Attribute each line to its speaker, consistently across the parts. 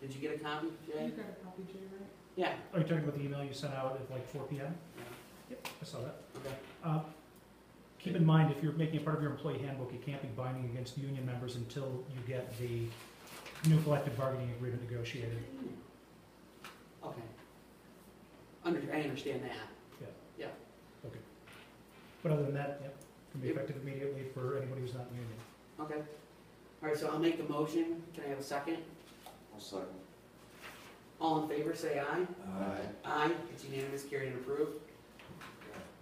Speaker 1: Did you get a copy, Jay?
Speaker 2: got a copy, Jay, right?
Speaker 1: Yeah,
Speaker 3: Are you talking about the email you sent out at like four P M?
Speaker 1: Yeah.
Speaker 3: Yep, I saw that.
Speaker 1: okay.
Speaker 3: Uh, Keep in mind, if you're making it part of your employee handbook, it can't be binding against union members until you get the new collective bargaining agreement negotiated.
Speaker 1: Okay. Under, I understand that.
Speaker 3: But other than that, yep, can be
Speaker 1: Yep.
Speaker 3: effective immediately for anybody who's not in union.
Speaker 1: Okay. All right, so I'll make the motion. Can I have a second?
Speaker 4: I'll second.
Speaker 1: All in favor, say aye.
Speaker 4: Aye.
Speaker 1: Aye, it's unanimous, carried and approved.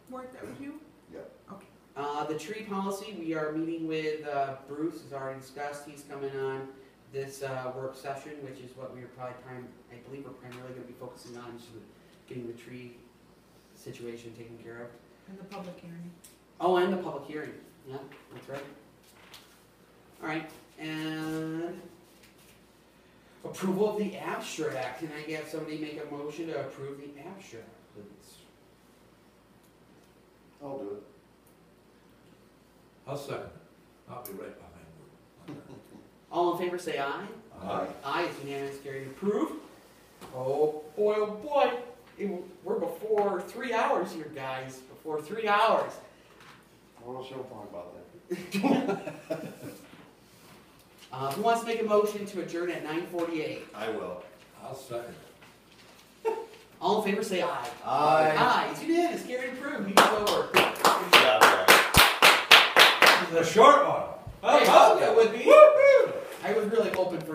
Speaker 2: Mark, that was you?
Speaker 1: Uh, the tree policy, we are meeting with, uh, Bruce, as already discussed, he's coming on this, uh, work session, which is what we are probably prim, I believe we're primarily gonna be focusing on, is getting the tree situation taken care of.
Speaker 2: And the public hearing.
Speaker 1: Oh, and the public hearing, yeah, that's right. All right, and approval of the abstract, can I have somebody make a motion to approve the abstract, please?
Speaker 4: I'll do it.
Speaker 5: I'll second. I'll be right behind you.
Speaker 1: All in favor, say aye.
Speaker 4: Aye.
Speaker 1: Aye, it's unanimous, carried and approved. Oh, boy, oh, boy, It- we're before three hours here, guys, before three hours.
Speaker 4: What else y'all talking about that?
Speaker 1: Uh, who wants to make a motion to adjourn at nine forty-eight?
Speaker 4: I will.
Speaker 5: I'll second.
Speaker 1: All in favor, say aye.
Speaker 4: Aye.
Speaker 1: Aye, it's unanimous, carried and approved, meeting's over.
Speaker 4: Good job, guys.
Speaker 5: The short one.
Speaker 1: Hey, I hoped that would be. I was really hoping for